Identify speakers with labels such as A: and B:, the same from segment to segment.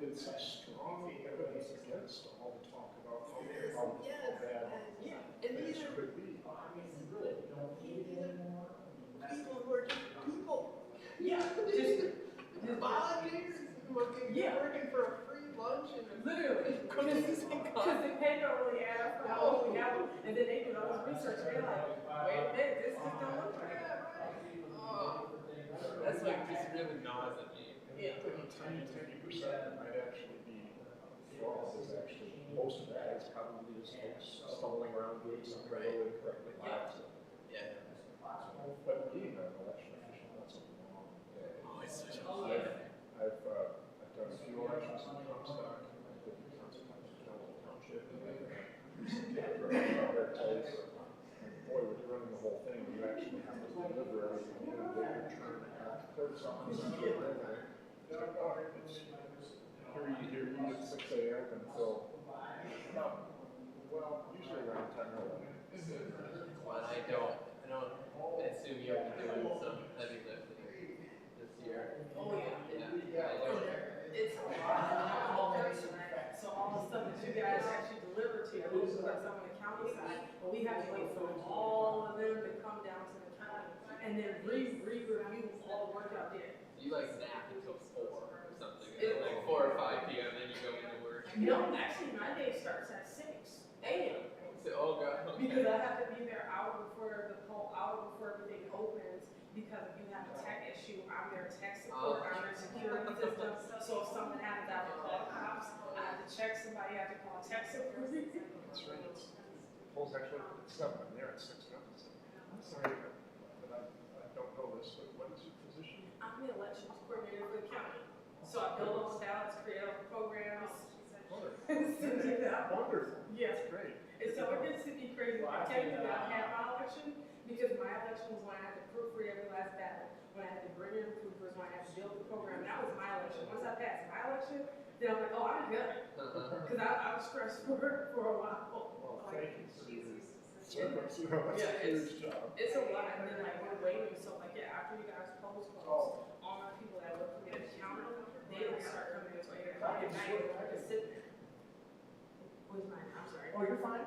A: been such strong evidence against all the talk about how how bad.
B: Yes, and
A: things
B: these are
A: could be.
B: people who are just people. Yeah,
C: just-
B: volunteers who are gonna be
C: Yeah.
B: working for a free lunch and a
C: Literally,
B: cookies and
C: because
B: coffee.
C: then they don't really ask for how old we have them, and then they do all this research, they're like, wait a minute, this just don't look right.
B: Oh,
D: That's like just really gnaws at me.
C: Yeah,
A: Ten, ten percent might actually be fraud is actually, most of that is probably just folks stumbling around doing something
D: Right.
A: really incorrectly.
C: Yeah.
D: Yeah.
A: But being an election official, that's a long day.
D: Oh, it's such a
C: Oh,
D: lot.
C: yeah.
A: I've, uh, I've done a few elections in Comstock, I've been in Comstock, General Township, and then for another place. And boy, with running the whole thing, you actually have to deliver everything, you know, they return half, third something, something like that. It's like, oh, it's, here you, here you at six AM until, no, well, usually around ten or eleven.
D: Well, I don't, I don't assume you'll be doing some heavy lifting this year.
C: oh, yeah.
D: Yeah, I don't.
C: Oh, It's a lot, and I'm all person, so all the stuff that you guys actually deliver to, I was like some on the county side, but we have to wait for all of them to come down to the county, and then re, re-review all the work out there.
D: You like nap until four or something, and
C: It-
D: then, like four or five p.m. Then you go into work.
C: No, actually, my day starts at six AM.
D: So, oh god.
C: Because I have to be there hour before the poll, hour before everything opens, because if you have a tech issue, I'm their tech support, I'm their security system. So if something happens, I have to call cops, I have to check somebody, I have to call tech support.
A: That's right, it's, polls actually at seven, I'm there at six, and I'm just like, I'm sorry, but I, I don't know this, but what is your position?
C: I'm the elections coordinator for the county, so I build all the ballots, create all the programs.
A: Wonderful.
C: send it out.
A: Wonderful,
C: Yes,
A: that's great.
C: And so it gets to be crazy. I tell you about half my election because my election was when I had to proofread every last ballot, when I had to bring in proofers, when I had to build the program. That was my election. Once I passed my election, then I'm like, oh, I'm good.
D: Uh-huh.
C: Because I, I was stressed for, for a while.
A: Well, thank you for your
C: Yeah.
A: service, you know, that's
C: Yeah,
A: a
C: it's-
A: huge job.
C: It's a lot. And then, like, we're waiting. So, like, yeah, after you guys post polls,
A: Oh,
C: all my people that work for me at the counter, they don't start coming until 8 o'clock at night. And I just sit there. Where's mine? I'm sorry.
E: Oh, you're fine.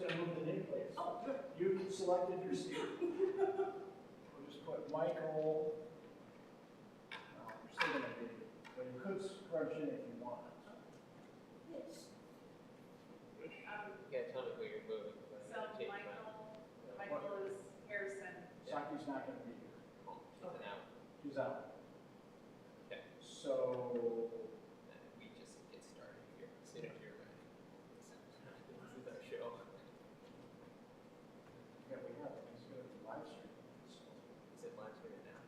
E: I'm just gonna move the nameplate.
C: Oh, good.
E: You selected your seat. We'll just put Michael. No, you're still gonna do it, but you could scrunch in if you want.
D: You gotta tell me where you're moving. but
F: Um, So
D: I'm taking my-
F: Michael, Michael is Harrison.
E: Saki's not gonna be here.
D: Oh, It's an hour.
E: He's out.
D: Okay.
E: So,
D: and we just get started here as soon as you're ready. This is our show.
E: yeah, we have, it. he's gonna be live streaming. so
D: Is it live streaming now?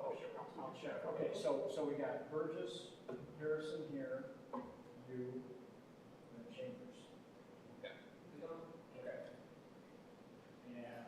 E: I'll check. I'll check. Okay, so, so we got Burgess, Harrison here, you, and Chambers. Okay. Yeah.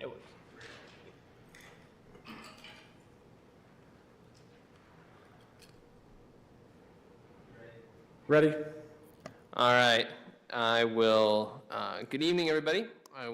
D: It was.
G: Ready?
D: All right. I will. Uh, good evening, everybody.